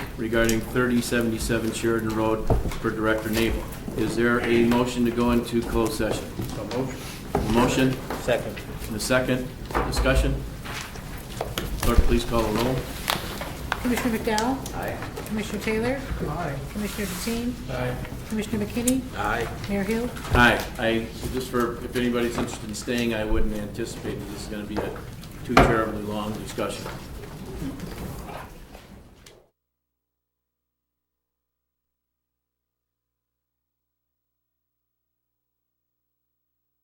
regarding 3077 Sheridan Road for Director Naval. Is there a motion to go into closed session? motion. Motion Second. and a second. Discussion? Clerk, please call the roll. Commissioner McDowell? Aye. Commissioner Taylor? Aye. Commissioner Deteen? Aye. Commissioner McKinney? Aye. Mayor Hill? Hi, I, just for, if anybody's interested in staying, I wouldn't anticipate that this is gonna be a too terribly long discussion.